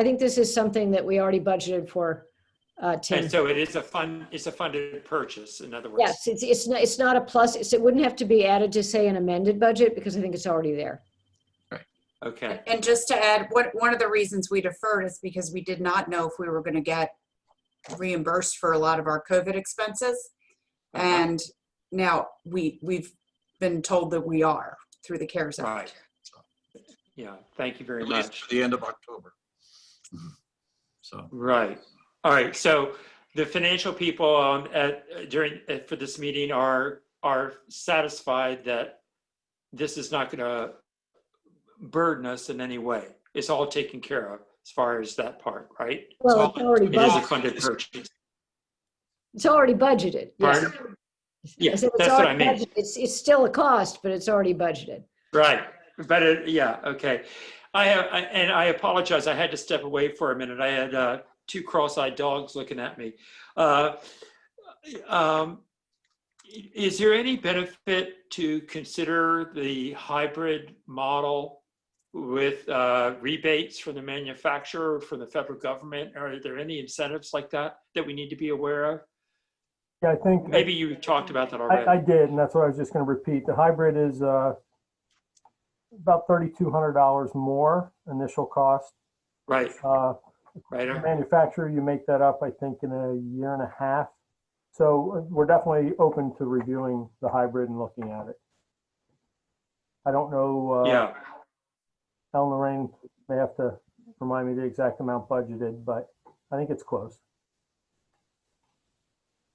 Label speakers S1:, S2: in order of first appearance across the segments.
S1: I think this is something that we already budgeted for, uh, Tim.
S2: And so it is a fund, it's a funded purchase, in other words.
S1: Yes, it's, it's not, it's not a plus, it's, it wouldn't have to be added to say an amended budget because I think it's already there.
S2: Okay,
S3: And just to add, what, one of the reasons we deferred is because we did not know if we were gonna get reimbursed for a lot of our COVID expenses.
S2: Uh-huh.
S3: And now we, we've been told that we are through the CARES
S2: Uh-huh. right.
S3: Act.
S2: Yeah, thank you very
S4: at least
S2: much.
S4: to the end of October. So,
S2: Right. All right. So the financial people um, at during uh, for this meeting are are satisfied that this is not going to burden us in any way. It's all taken care of as far as that part, right?
S1: Well, it's already
S2: It is a
S1: budgeted.
S2: funded purchase.
S1: It's already budgeted. yes.
S2: Pardon?
S1: I
S2: Yeah,
S1: said it's
S2: that's what I
S1: already
S2: mean.
S1: budgeted. It's, it's still a cost, but it's already budgeted.
S2: Right, but it, yeah, okay. I have, I- and I apologize, I had to step away for a minute. I had uh, two cross-eyed dogs looking at me. Uh, um, i- Is there any benefit to consider the hybrid model with uh, rebates from the manufacturer, from the federal government? Are there any incentives like that that we need to be aware of?
S5: Yeah, I think.
S2: Maybe you talked about that
S5: I, I
S2: already.
S5: did, and that's what I was just gonna repeat. The hybrid is, uh, about thirty-two hundred dollars more initial cost.
S2: Right,
S5: Uh, the
S2: right.
S5: manufacturer, you make that up, I think, in a year and a half. So uh, we're definitely open to reviewing the hybrid and looking at it. I don't know, uh,
S2: Yeah,
S5: Ellen Lorraine may have to remind me the exact amount budgeted, but I think it's close,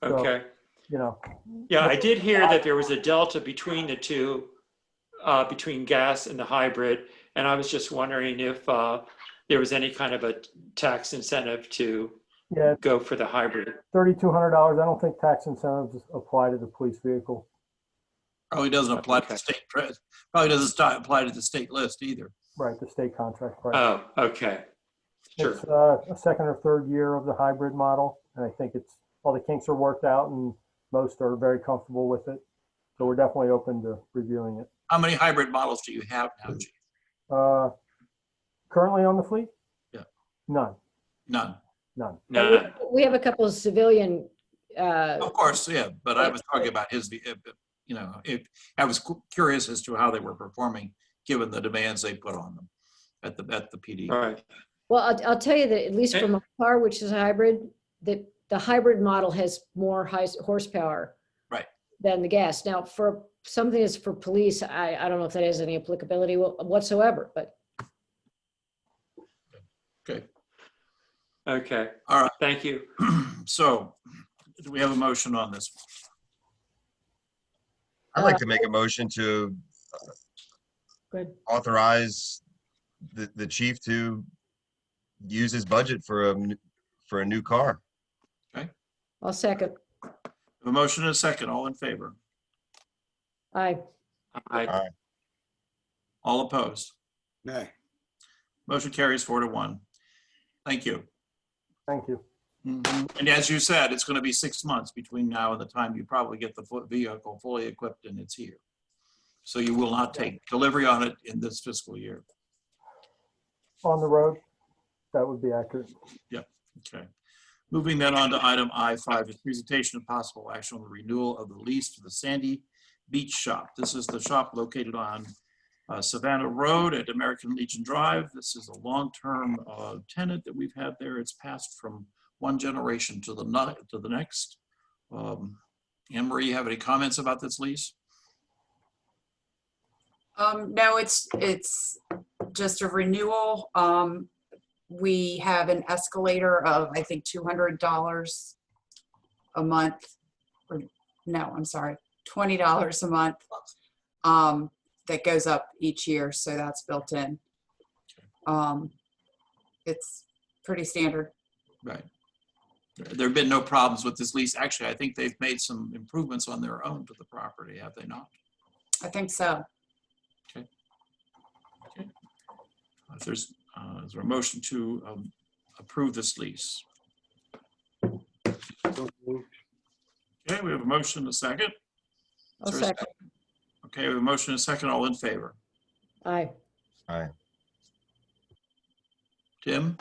S5: so-
S2: okay.
S5: you know.
S2: Yeah, I did hear that there was a delta between the two, uh, between gas and the hybrid. And I was just wondering if uh, there was any kind of a tax incentive to
S5: Yeah,
S2: go for the hybrid.
S5: thirty-two hundred dollars, I don't think tax incentives apply to the police vehicle.
S4: probably doesn't apply to
S2: Okay.
S4: the state, tre- probably doesn't sti- apply to the state list either.
S5: Right, the state contract price.
S2: Oh, okay. Sure.
S5: It's uh, a second or third year of the hybrid model, and I think it's, all the kinks are worked out and most are very comfortable with it. So we're definitely open to reviewing it.
S4: How many hybrid models do you have now, Chief?
S5: Uh, Currently on the fleet?
S4: Yeah.
S5: None,
S4: None.
S5: none.
S1: But we-
S2: No,
S1: We have a couple of civilian, uh,
S4: Of course, yeah, but I was talking about his, if- if- you know, if, I was cu- curious as to how they were performing, given the demands they put on them at the, at the PD.
S2: all right.
S1: well, I'll, I'll tell you that at least for my car, which is a hybrid, that the hybrid model has more high horsepower.
S4: Right.
S1: Than the gas. Now, for something that's for police, I, I don't know if that has any applicability wha- whatsoever, but
S2: Okay.
S4: All right.
S2: Thank you.
S4: So, do we have a motion on this?
S6: I'd like to make a motion to uh,
S1: Good.
S6: authorize the, the chief to use his budget for a, n- for a new car.
S1: I'll second.
S4: A motion and a second, all in favor,
S1: Aye.
S2: I,
S4: all opposed?
S7: Nay.
S4: Motion carries four to one. Thank you.
S5: Thank you.
S4: Mhm. And as you said, it's going to be six months between now and the time you probably get the fu- vehicle fully equipped and it's here. So you will not take delivery on it in this fiscal year.
S5: On the road, that would be accurate.
S4: Okay. Moving then on to item I5, is presentation of possible action on the renewal of the lease for the Sandy Beach Shop. This is the shop located on uh, Savannah Road at American Legion Drive. This is a long-term uh, tenant that we've had there. It's passed from one generation to the, no- to the next. Um, Anne Marie, you have any comments about this lease?
S3: Um, no, it's, it's just a renewal. Um, we have an escalator of, I think, two hundred dollars a month. Or, no, I'm sorry, twenty dollars a month. Um, that goes up each year, so that's built in. Um, it's pretty standard.
S4: Right. There have been no problems with this lease. Actually, I think they've made some improvements on their own to the property, have they not?
S3: I think so.
S4: If there's, uh, is there a motion to um, approve this lease?
S7: So moved.
S4: Okay, we have a motion, and a second.
S1: I'll
S4: Is there a
S1: second.
S4: Okay, we have a motion, and a second, all in favor.
S1: Aye.
S4: Tim?